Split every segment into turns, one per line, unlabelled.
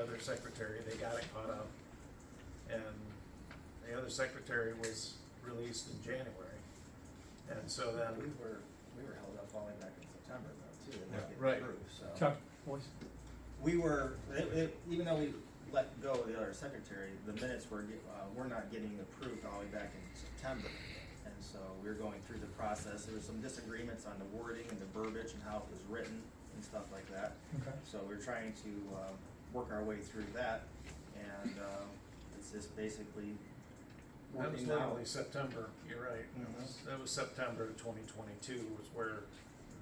other secretary, they got it caught up. And the other secretary was released in January. And so
We
then,
were, we were held up all the way back in September though, too, and that
Right.
didn't prove, so.
Chuck, voice.
We were, it, it, even though we let go of the other secretary, the minutes were, get- uh, were not getting approved all the way back in September. And so we were going through the process, there was some disagreements on the wording and the verbiage and how it was written and stuff like that.
Okay.
So we're trying to, uh, work our way through that, and, um, it's just basically
that was
working out.
literally September, you're right. That was- That was September of twenty twenty-two was where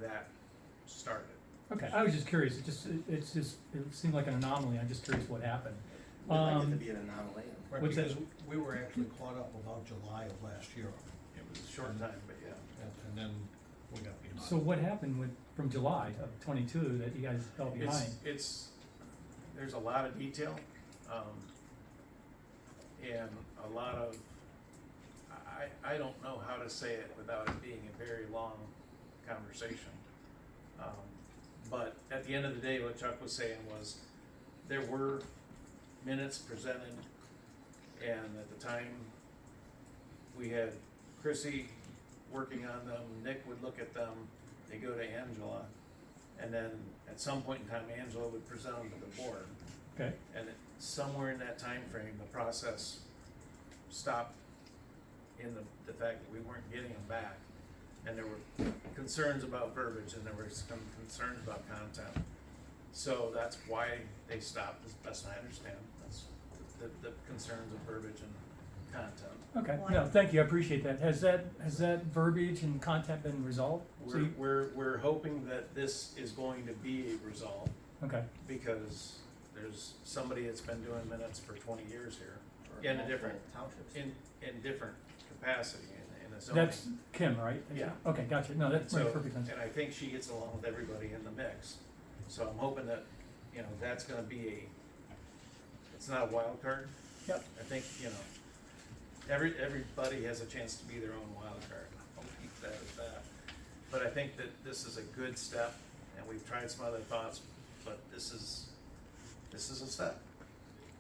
that started.
Okay, I was just curious, it just, it- it's just, it seemed like an anomaly, I'm just curious what happened.
We'd like it to
Um,
be an anomaly, and-
Right,
What's that?
because we were actually caught up about July of last year,
It was a short time, but yeah.
and and then we got behind.
So what happened with, from July of twenty-two that you guys fell
It's,
behind?
it's, there's a lot of detail, um, and a lot of, I, I don't know how to say it without it being a very long conversation. Um, But at the end of the day, what Chuck was saying was, there were minutes presented, and at the time, we had Chrissy working on them, Nick would look at them, they go to Angela, and then at some point in time, Angela would present them to the board.
Okay,
And it- somewhere in that time frame, the process stopped in the, the fact that we weren't getting them back. And there were concerns about verbiage and there were some concerns about content. So that's why they stopped, as best I understand, that's the, the concerns of verbiage and content.
okay,
Well,
no,
I-
thank you, I appreciate that. Has that, has that verbiage and content been resolved? So
We're,
you-
we're, we're hoping that this is going to be resolved
Okay,
because there's somebody that's been doing minutes for twenty years here
or
Yeah, and a
multiple
different-
Townships.
in, in different capacity in, in a zoning.
that's Kim, right?
Yeah.
Okay, gotcha, no, that
So,
makes perfect sense.
And I think she gets along with everybody in the mix. So I'm hoping that, you know, that's gonna be a, it's not a wild card.
Yep.
I think, you know, every, everybody has a chance to be their own wild card. I'll keep that as that. But I think that this is a good step, and we've tried some other thoughts, but this is, this is a step.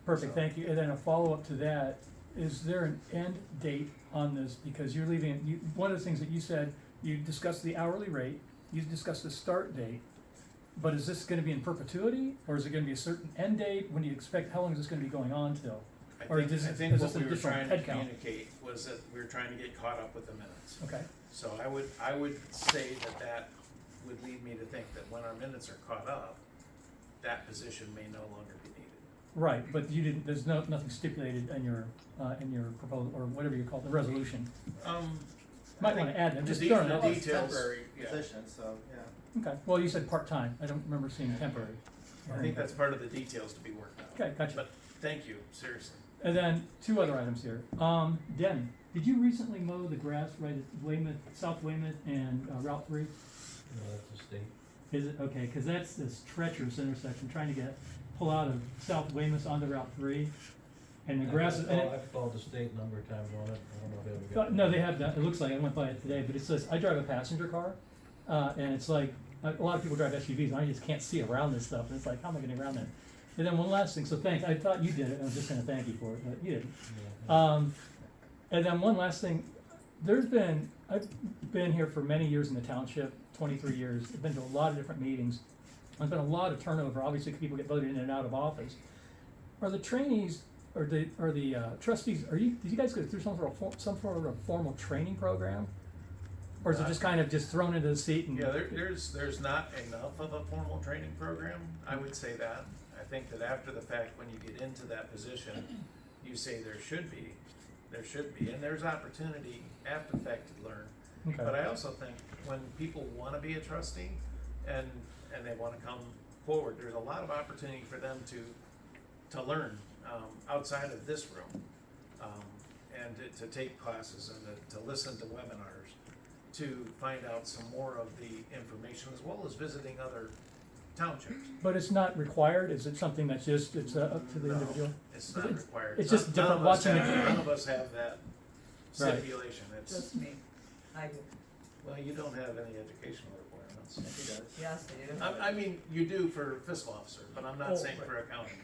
Perfect,
So-
thank you. And then a follow-up to that, is there an end date on this? Because you're leaving, you, one of the things that you said, you discussed the hourly rate, you discussed the start date. But is this gonna be in perpetuity, or is it gonna be a certain end date? When do you expect, how long is this gonna be going on till?
I
Or
think,
does
I
it-
think
is
what
this a
we were
different
trying to
head count?
communicate was that we were trying to get caught up with the minutes.
Okay,
So I would, I would say that that would lead me to think that when our minutes are caught up, that position may no longer be needed.
right, but you didn't, there's no, nothing stipulated in your, uh, in your proposal, or whatever you call it, the resolution.
Um.
Might wanna add, that,
the
just
de-
throwing it
the
out
Well,
there.
it's
details,
Temporary
yeah.
position, so, yeah.
Okay, well, you said part-time, I don't remember seeing temporary.
I think that's part of the details to be worked out.
Okay, gotcha.
But thank you, seriously.
And then two other items here. Um, Denny, did you recently mow the grass right at Weymouth, South Weymouth and uh, Route Three?
No, that's a state.
Is it, okay, cause that's this treacherous intersection, trying to get, pull out of South Weymouth onto Route Three. And the grass, is- and
Well,
it,
I've called the state a number of times on it, I don't know if they ever
Uh,
got.
No, they have that. It looks like I went by it today, but it says I drive a passenger car, uh, and it's like a a lot of people drive SUVs, and I just can't see around this stuff. And it's like, how am I getting around that? And then one last thing. So thanks. I thought you did it. and I'm just going to thank you for it, but you didn't. Um, and then one last thing. There's been I've been here for many years in the township, 23 years. I've been to a lot of different meetings. There's been a lot of turnover. Obviously, people get voted in and out of office. Are the trainees or the or the uh, trustees? Are you? Did you guys go through some sort of for, some sort of formal training program, or is it just kind of just thrown into the seat and?
Uh, Yeah, there, there's, there's not enough of a formal training program, I would say that. I think that after the fact, when you get into that position, you say there should be, there should be, and there's opportunity after the fact to learn.
Okay.
But I also think when people want to be a trustee and, and they want to come forward, there's a lot of opportunity for them to, to learn um, outside of this room. um, And to- to take classes and to- to listen to webinars, to find out some more of the information as well as visiting other townships.
But it's not required. Is it something that's just it's uh, up to the
No,
individual?
It's not
It's-
required.
it's just
None of
different
us
watching
have-
it.
None of us have that stipulation. It's,
Just me. I do.
well, you don't have any educational requirements.
Yes, it does.
Yes, I do.
I, I mean, you do for fiscal officer, but I'm
Oh,
not saying
right.
for accounting.